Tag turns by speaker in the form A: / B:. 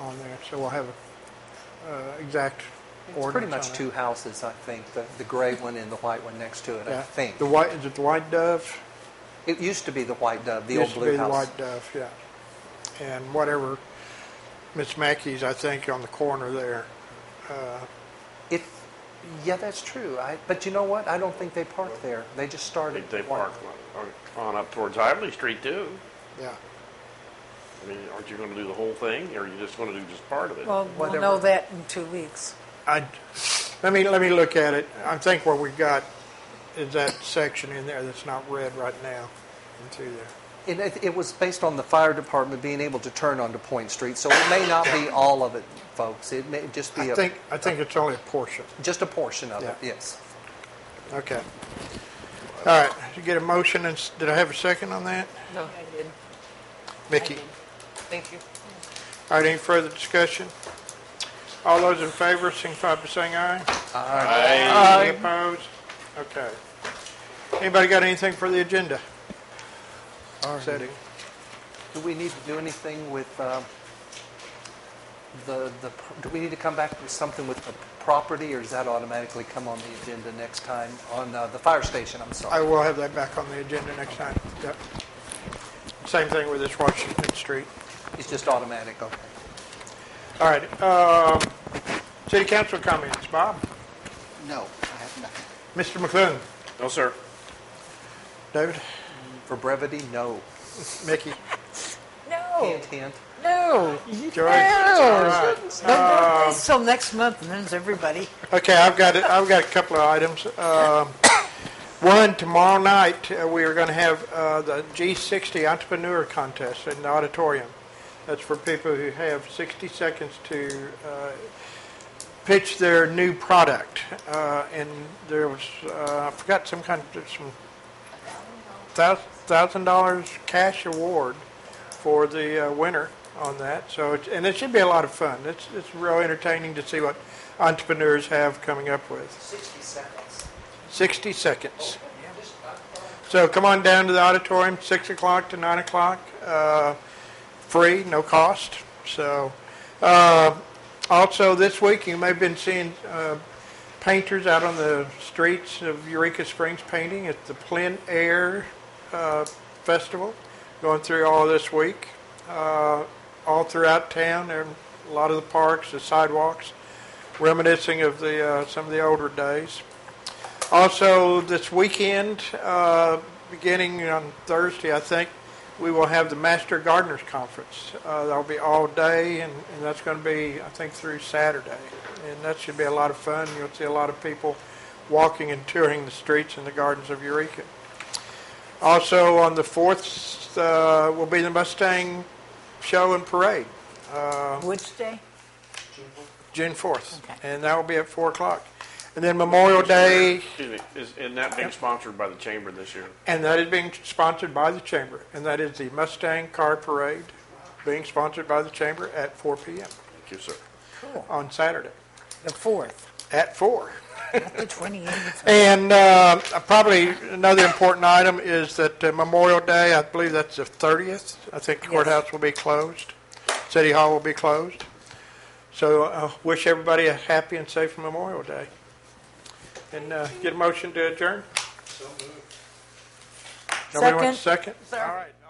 A: on there, so we'll have a uh, exact
B: It's pretty
A: ordinance
B: much
A: on
B: two houses, I think, the, the gray one and the white one next to it,
A: it.
B: I
A: Yeah.
B: think.
A: The white, is it the White Dove?
B: It used to be the white dove, the old
A: Used to be
B: blue
A: the
B: house.
A: White Dove, yeah. And whatever, Miss Mackey's, I think, on the corner there.
B: It, yeah, that's true. I, but you know what? I don't think they parked there. They just
C: They,
B: started.
C: they
B: one.
C: park on, on up towards Ively Street too.
A: Yeah,
C: I mean, aren't you gonna do the whole thing, or are you just gonna do just part of it?
D: Well, we'll
B: Whatever.
D: know that in two weeks.
A: I, let me, let me look at it. I think what we've got is that section in there that's not red right now into there.
B: And it, it was based on the fire department being able to turn onto Point Street, so it may not be all of it, folks. It may just be
A: I
B: a,
A: think, I think it's only a portion.
B: just a portion of it,
A: Yeah.
B: yes.
A: Okay. All right, did you get a motion, and, s- did I have a second on that?
E: No, I did.
A: Mickey?
E: Thank you.
A: All right, any further discussion? All those in favor, signify by saying aye. Aye. Any opposed? Okay. Anybody got anything for the agenda? Setting.
B: Do we need to do anything with uh, the, the, pr- do we need to come back with something with the property, or does that automatically come on the agenda next time, on uh, the fire station, I'm
A: I
B: sorry?
A: will have that back on the agenda next time. Yep. Same thing with this Washington Street.
B: It's just automatic, okay.
A: All right, uh, city council comments, Bob?
B: No, I have nothing.
A: Mr. McLuhan?
C: No, sir.
A: David?
B: For brevity, no.
A: Mickey?
D: No, Oh.
B: Hint, hint.
D: no,
A: Joyce? All right.
D: Till next month, and then it's everybody.
A: Okay, I've got, it- I've got a couple of items. Um, One, tomorrow night, uh, we are going to have uh, the G60 Entrepreneur Contest in the auditorium. That's for people who have 60 seconds to uh, pitch their new product. Uh, And there was, uh, I forgot, some kind, there's some thous- $1,000 cash award for the uh, winner on that. So, it's- and it should be a lot of fun. It's it's real entertaining to see what entrepreneurs have coming up with.
B: 60 seconds.
A: 60 seconds. So come on down to the auditorium, 6 o'clock to 9 o'clock, uh, free, no cost. So, uh, also this week, you may have been seeing uh, painters out on the streets of Eureka Springs painting at the Plein Air uh, Festival, going through all this week, uh, all throughout town, and a lot of the parks, the sidewalks, reminiscing of the uh, some of the older days. Also, this weekend, uh, beginning on Thursday, I think, we will have the Master Gardeners Conference. Uh, that'll be all day, and, and that's going to be, I think, through Saturday. And that should be a lot of fun. You'll see a lot of people walking and touring the streets and the gardens of Eureka. Also, on the 4th uh, will be the Mustang Show and Parade,
D: Which day?
A: June 4th.
D: Okay.
A: And that will be at 4 o'clock. And then Memorial Day.
C: Excuse me, is, isn't that being sponsored by the chamber this year?
A: And that is being sponsored by the chamber, and that is the Mustang Car Parade, being sponsored by the chamber at 4 p.m.
C: Thank you, sir.
A: on Saturday,
D: The fourth,
A: at 4.
D: not the twenty-eighth.
A: And uh, probably another important item is that uh, Memorial Day, I believe that's the 30th, I think the courthouse will be closed, City Hall will be closed. So uh, wish everybody a happy and safe Memorial Day. And uh, get a motion to adjourn? Nobody wants a second? All right.